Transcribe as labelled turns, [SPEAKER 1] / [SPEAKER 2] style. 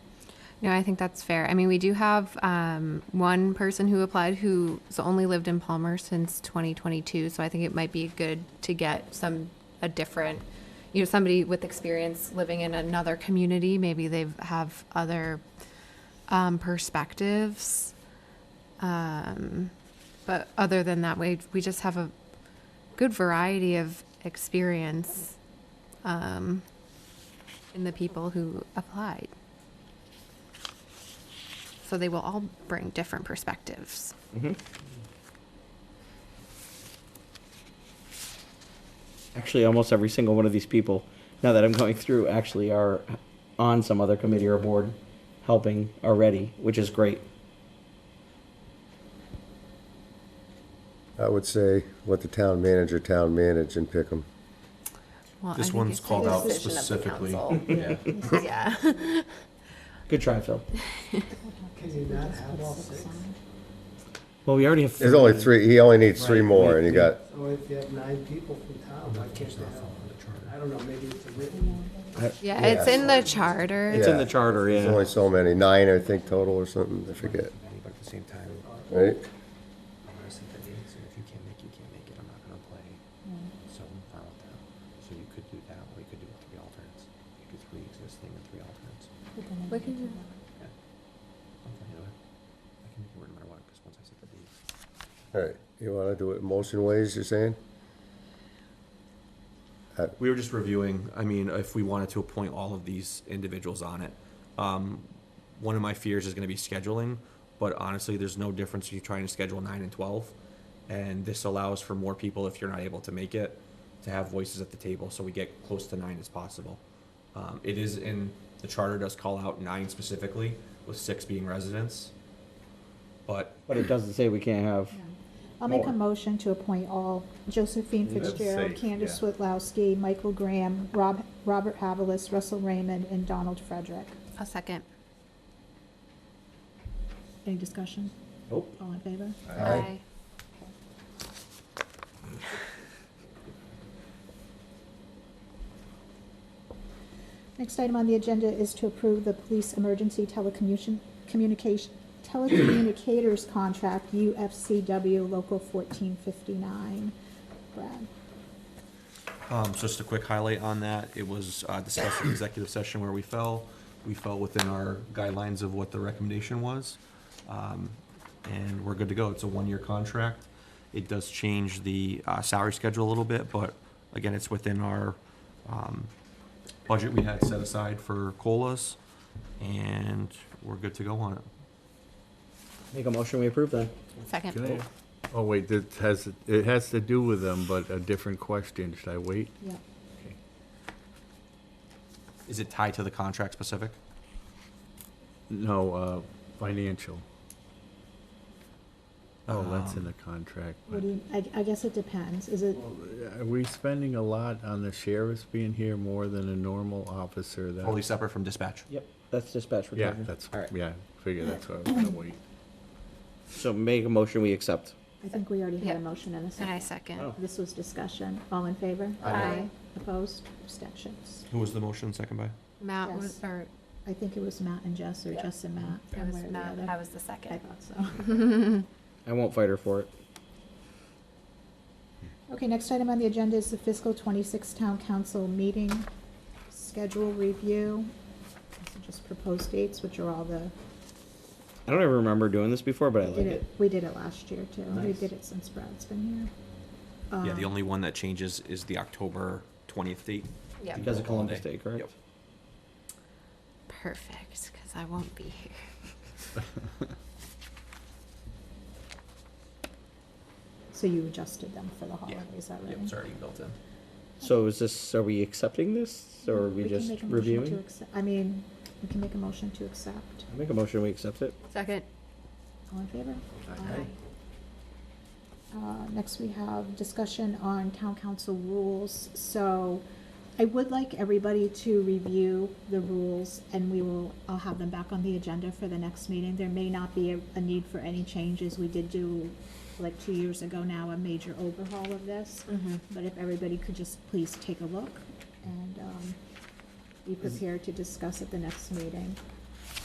[SPEAKER 1] No, I think that's fair. I mean, we do have um, one person who applied who's only lived in Palmer since 2022, so I think it might be good to get some, a different, you know, somebody with experience living in another community. Maybe they have other um, perspectives. Um, But other than that, we, we just have a good variety of experience um, in the people who applied. So they will all bring different perspectives.
[SPEAKER 2] Actually, almost every single one of these people, now that I'm going through, actually are on some other committee or board helping already, which is great.
[SPEAKER 3] I would say let the town manager, town manage and pick them.
[SPEAKER 1] Well, I
[SPEAKER 4] This
[SPEAKER 1] think
[SPEAKER 4] one's
[SPEAKER 1] it's the
[SPEAKER 4] called out
[SPEAKER 1] decision of the
[SPEAKER 4] specifically.
[SPEAKER 1] council.
[SPEAKER 4] Yeah.
[SPEAKER 1] Yeah.
[SPEAKER 2] Good try, Phil.
[SPEAKER 5] Can you not have all six?
[SPEAKER 2] Well, we already have.
[SPEAKER 3] There's only three, he only needs three more and you got,
[SPEAKER 5] So if you have nine people from town, why can't they have, I don't know, maybe it's a written.
[SPEAKER 1] Yeah, it's in the charter.
[SPEAKER 2] It's in the
[SPEAKER 3] Yeah.
[SPEAKER 2] charter,
[SPEAKER 3] there's only
[SPEAKER 2] yeah.
[SPEAKER 3] so many, nine I think total or something, I forget,
[SPEAKER 6] But at the same time,
[SPEAKER 3] right?
[SPEAKER 6] I'm gonna set the date, so if you can't make, it, you can't make it, I'm not gonna play. So I'm fine with that. So you could do that, or you could do three alternates. You could do three existing and three alternates.
[SPEAKER 1] We can do
[SPEAKER 6] Yeah. I'm fine either way. I can make it work no matter what, because once I set the date.
[SPEAKER 3] All right, you wanna do it motion ways, you're saying? Uh,
[SPEAKER 4] We were just reviewing, I mean, if we wanted to appoint all of these individuals on it. Um, one of my fears is gonna be scheduling, but honestly, there's no difference if you trying to schedule nine and twelve. And this allows for more people, if you're not able to make it, to have voices at the table, so we get close to nine as possible. Um, it is in, the charter does call out nine specifically, with six being residents. But
[SPEAKER 2] But it doesn't say we can't have.
[SPEAKER 7] I'll make a
[SPEAKER 2] More.
[SPEAKER 7] motion to appoint all Josephine
[SPEAKER 4] That's
[SPEAKER 7] Fitzgerald,
[SPEAKER 4] safe,
[SPEAKER 7] Candace
[SPEAKER 4] yeah.
[SPEAKER 7] Switlowski, Michael Graham, Rob, Robert Havelis, Russell Raymond, and Donald Frederick.
[SPEAKER 1] A second.
[SPEAKER 7] Any discussion?
[SPEAKER 2] Nope.
[SPEAKER 7] All in favor?
[SPEAKER 1] Aye.
[SPEAKER 7] Next item on the agenda is to approve the police emergency telecommunication, communication, telecommunicators contract, UFCW Local fourteen fifty-nine. Brad?
[SPEAKER 4] Um, so just a quick highlight on that, it was, uh, discussed in executive session where we fell. We fell within our guidelines of what the recommendation was. Um, and we're good to go. It's a one-year contract. It does change the, uh, salary schedule a little bit, but again, it's within our, um, budget we had set aside for COLAs. And we're good to go on it.
[SPEAKER 2] Make a motion, we approve then.
[SPEAKER 1] Second.
[SPEAKER 8] Oh, wait, this has, it has to do with them, but a different question. Should I wait?
[SPEAKER 7] Yeah.
[SPEAKER 4] Is it tied to the contract specific?
[SPEAKER 8] No, uh, financial. Oh, that's in the contract.
[SPEAKER 7] Um, What do you, I, I guess it depends. Is it,
[SPEAKER 8] Are we spending a lot on the sheriffs being here more than a normal officer? That-
[SPEAKER 4] Totally separate from dispatch.
[SPEAKER 2] Yep, that's dispatch. we're
[SPEAKER 8] Yeah,
[SPEAKER 2] talking.
[SPEAKER 8] that's,
[SPEAKER 2] All right,
[SPEAKER 8] yeah, figure that's why I was gonna wait.
[SPEAKER 2] so make a motion, we accept.
[SPEAKER 7] I think we already had
[SPEAKER 1] Yeah.
[SPEAKER 7] a motion and a
[SPEAKER 1] And I
[SPEAKER 7] second.
[SPEAKER 1] second.
[SPEAKER 2] Oh.
[SPEAKER 7] This was discussion. All in favor?
[SPEAKER 1] Aye. Aye.
[SPEAKER 7] Opposed? Abstentions?
[SPEAKER 4] Who was the motion second by?
[SPEAKER 1] Matt
[SPEAKER 7] Yes.
[SPEAKER 1] was, or
[SPEAKER 7] I think it was Matt and Jess, or Jess and Matt.
[SPEAKER 1] it
[SPEAKER 7] one
[SPEAKER 1] was
[SPEAKER 7] way or the
[SPEAKER 1] Matt,
[SPEAKER 7] other.
[SPEAKER 1] I was the
[SPEAKER 7] I
[SPEAKER 1] second.
[SPEAKER 7] thought so.
[SPEAKER 2] I won't fight her for it.
[SPEAKER 7] Okay, next item on the agenda is the fiscal twenty-six town council meeting schedule review. These are Just proposed dates, which are all the,
[SPEAKER 2] I don't ever remember doing this before, but I
[SPEAKER 7] we did
[SPEAKER 2] like
[SPEAKER 7] it,
[SPEAKER 2] it.
[SPEAKER 7] we did it last year too. We
[SPEAKER 2] Nice.
[SPEAKER 7] did it since Brad's been here.
[SPEAKER 4] Yeah, the
[SPEAKER 7] Um,
[SPEAKER 4] only one that changes is the October twentieth date.
[SPEAKER 1] Yep.
[SPEAKER 2] Because of Columbus
[SPEAKER 4] Holiday.
[SPEAKER 2] Day, correct?
[SPEAKER 4] Yep.
[SPEAKER 1] Perfect, because I won't be here.
[SPEAKER 7] So you adjusted them for the
[SPEAKER 4] Yeah.
[SPEAKER 7] holidays, is that right?
[SPEAKER 4] Yep, it's already built in.
[SPEAKER 2] So is this, are we accepting this or are we
[SPEAKER 7] We can
[SPEAKER 2] just
[SPEAKER 7] make a motion to
[SPEAKER 2] reviewing?
[SPEAKER 7] accep- I mean, we can make a motion to accept.
[SPEAKER 2] Make a motion, we accept it.
[SPEAKER 1] Second.
[SPEAKER 7] All in favor? Uh, Next, we have discussion on town council rules. So I would like everybody to review the rules, and we will, I'll have them back on the agenda for the next meeting. There may not be a- a need for any changes. We did do, like, two years ago now, a major overhaul of this.
[SPEAKER 1] Mm-hmm.
[SPEAKER 7] But if everybody could just please take a look and um, be prepared to discuss at the next meeting.